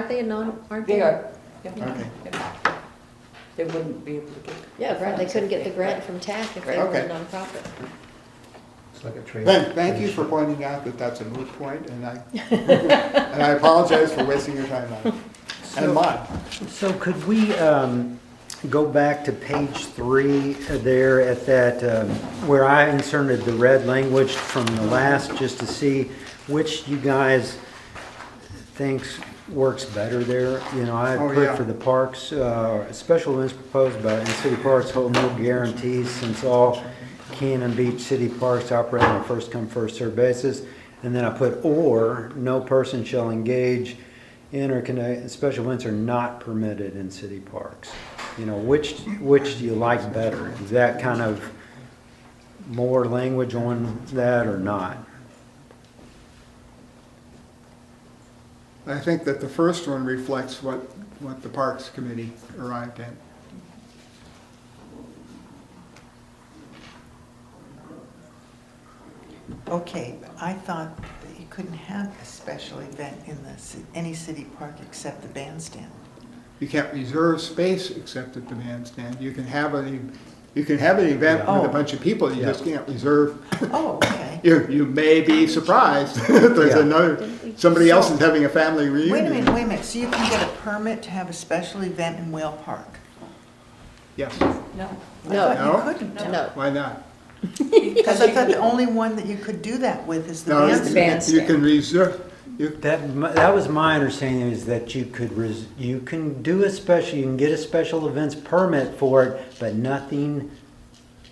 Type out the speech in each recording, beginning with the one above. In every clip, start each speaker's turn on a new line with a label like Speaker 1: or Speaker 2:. Speaker 1: Aren't they a non, aren't they?
Speaker 2: They are.
Speaker 3: Okay.
Speaker 2: They wouldn't be able to get.
Speaker 1: Yeah, right, they couldn't get the grant from TAC if they were a
Speaker 3: Okay.
Speaker 1: nonprofit.
Speaker 4: It's like a trade.
Speaker 3: Thank, thank you for pointing out that that's a moot point, and I, and I apologize for wasting your time on it, and mine.
Speaker 4: So could we um, go back to page three uh, there at that, um, where I inserted the red language from the last, just to see which you guys thinks works better there? You know, I
Speaker 3: Oh,
Speaker 4: put
Speaker 3: yeah.
Speaker 4: for the parks, uh, special events proposed by, and city parks hold no guarantees since all Cannon Beach city parks operate on a first-come, first-served basis. And then I put, or, no person shall engage in or connect, special events are not permitted in city parks. You know, which, which do you like better? Is that kind of more language on that or not?
Speaker 3: I think that the first one reflects what, what the Parks Committee arrived at.
Speaker 5: Okay, I thought that you couldn't have a special event in the, ci- any city park except the bandstand.
Speaker 3: You can't reserve space except at the bandstand, you can have an, you can have an event with
Speaker 5: Oh.
Speaker 3: a bunch of people, you just
Speaker 4: Yeah.
Speaker 3: can't reserve.
Speaker 5: Oh, okay.
Speaker 3: You, you may be surprised, that there's
Speaker 4: Yeah.
Speaker 3: another, somebody else is having a family
Speaker 5: Wait
Speaker 3: reunion.
Speaker 5: a minute, wait a minute, so you can get a permit to have a special event in Whale Park?
Speaker 3: Yes,
Speaker 2: No.
Speaker 5: I
Speaker 1: No,
Speaker 5: thought
Speaker 3: No.
Speaker 5: you couldn't.
Speaker 1: no,
Speaker 3: why not?
Speaker 5: Because I thought the only one that you could do that with is the
Speaker 3: No, you-
Speaker 5: bandstand.
Speaker 3: You can reserve, you,
Speaker 4: That, m- that was my understanding is that you could, res- you can do a special, you can get a special events permit for it, but nothing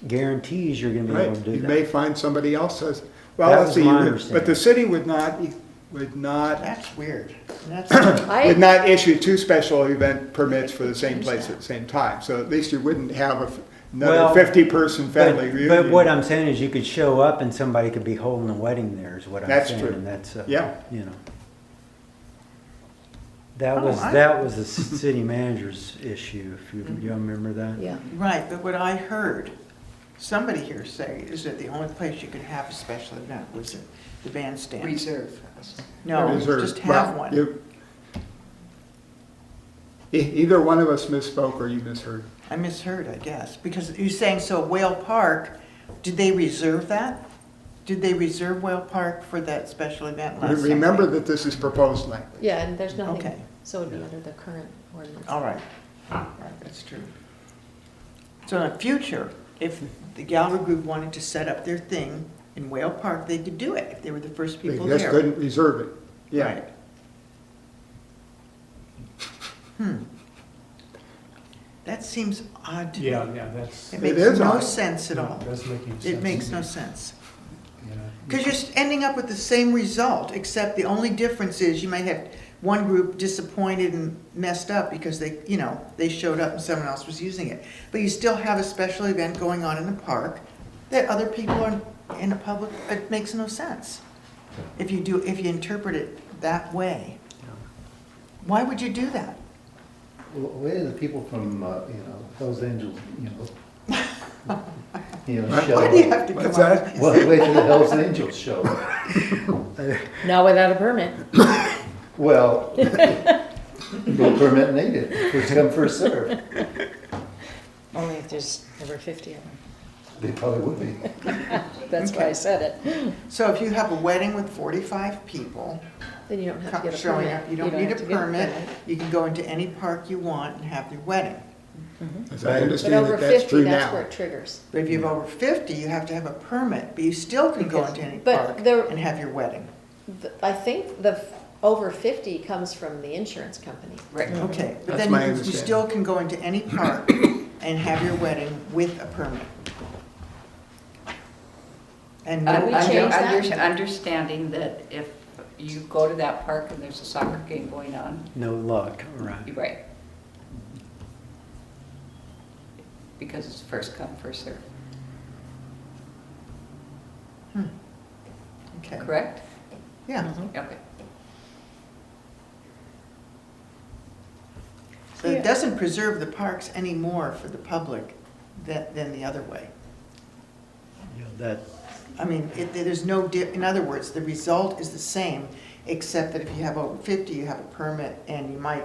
Speaker 4: guarantees you're gonna be able
Speaker 3: Right,
Speaker 4: to do
Speaker 3: you
Speaker 4: that.
Speaker 3: may find somebody else says, well,
Speaker 4: That
Speaker 3: let's
Speaker 4: was
Speaker 3: see,
Speaker 4: my
Speaker 3: you- but
Speaker 4: understanding.
Speaker 3: the city would not, e, would not,
Speaker 5: That's weird. That's,
Speaker 1: I,
Speaker 3: would not issue two special event permits for the same place at the same time, so at least you wouldn't have a f- another
Speaker 4: Well,
Speaker 3: fifty-person family
Speaker 4: But, but
Speaker 3: reunion.
Speaker 4: what I'm saying is you could show up and somebody could be holding a wedding there is what I'm
Speaker 3: That's
Speaker 4: saying.
Speaker 3: true.
Speaker 4: And that's, uh,
Speaker 3: Yeah.
Speaker 4: you know. That
Speaker 5: Oh,
Speaker 4: was,
Speaker 5: I- Mm-hmm.
Speaker 4: that was the s- city manager's issue, if you, you remember that?
Speaker 1: yeah,
Speaker 5: right, but what I heard, somebody here say, is that the only place you could have a special event was at the bandstand.
Speaker 2: Reserve.
Speaker 5: No,
Speaker 3: Reserve.
Speaker 5: just
Speaker 3: Well,
Speaker 5: have one.
Speaker 3: you- E- Either one of us misspoke or you misheard.
Speaker 5: I misheard, I guess, because you're saying, so Whale Park, did they reserve that? Did they reserve Whale Park for that special event last summer?
Speaker 3: Remember that this is proposed language.
Speaker 1: yeah, and there's nothing,
Speaker 5: Okay.
Speaker 1: so it'd be under the current ordinance.
Speaker 5: All right, All right, that's true. So in the future, if the gallery group wanted to set up their thing in Whale Park, they could do it, if they were the first
Speaker 3: They
Speaker 5: people
Speaker 3: just
Speaker 5: there.
Speaker 3: couldn't reserve it. Yeah,
Speaker 5: Right. Hmm. That seems odd to me.
Speaker 6: Yeah, yeah, that's,
Speaker 5: It
Speaker 3: It
Speaker 5: makes
Speaker 3: is
Speaker 5: no
Speaker 3: odd.
Speaker 5: sense at
Speaker 6: no,
Speaker 5: all.
Speaker 6: it doesn't make any sense.
Speaker 5: It makes no sense.
Speaker 6: Yeah.
Speaker 5: Because you're s- ending up with the same result, except the only difference is you might have one group disappointed and messed up because they, you know, they showed up and someone else was using it. But you still have a special event going on in the park that other people are in the public, it makes no sense. If you do, if you interpret it that way. Why would you do that?
Speaker 7: Well, Where are the people from, uh, you know, Hells Angels, you know? You know, show
Speaker 5: Why do you
Speaker 7: up.
Speaker 5: have to come
Speaker 3: What's
Speaker 5: up?
Speaker 3: that?
Speaker 5: with these?
Speaker 7: Well, where do the Hells Angels show up?
Speaker 1: Not without a permit.
Speaker 7: Well, no permit needed, first come, first served.
Speaker 8: Only if there's over 50 of them.
Speaker 7: They probably would be.
Speaker 8: That's why I said it.
Speaker 5: So if you have a wedding with forty-five people,
Speaker 1: Then you don't have to get a
Speaker 5: showing
Speaker 1: permit.
Speaker 5: up, you don't need a
Speaker 1: have to get
Speaker 5: permit, you can go into any park you want and have your wedding.
Speaker 3: as I
Speaker 1: But
Speaker 3: understand
Speaker 1: over
Speaker 3: it, that's
Speaker 1: fifty,
Speaker 3: true
Speaker 1: that's where
Speaker 3: now.
Speaker 1: it triggers.
Speaker 5: But if you have over fifty, you have to have a permit, but you still can go
Speaker 1: Because-
Speaker 5: into any
Speaker 1: but
Speaker 5: park
Speaker 1: there-
Speaker 5: and have your wedding.
Speaker 1: The- I think the f- over fifty comes from the insurance company.
Speaker 2: Right.
Speaker 5: Okay, but
Speaker 3: That's
Speaker 5: then you
Speaker 3: my
Speaker 5: can- you
Speaker 3: understanding.
Speaker 5: still can go into any park and have your wedding with a permit. And no-
Speaker 2: Un-
Speaker 1: Uh, we
Speaker 2: under-
Speaker 1: change that?
Speaker 2: under- Understanding that if you go to that park and there's a soccer game going on,
Speaker 4: No luck, right?
Speaker 2: you're right. Because it's first come, first served,
Speaker 5: okay,
Speaker 2: correct?
Speaker 5: Hmm. yeah.
Speaker 1: Mm-hmm.
Speaker 2: Okay.
Speaker 5: So it doesn't preserve the parks any more for the public than, than the other way.
Speaker 4: Yeah, That,
Speaker 5: I mean, it, there's no dip, in other words, the result is the same, except that if you have over fifty, you have a permit, and you might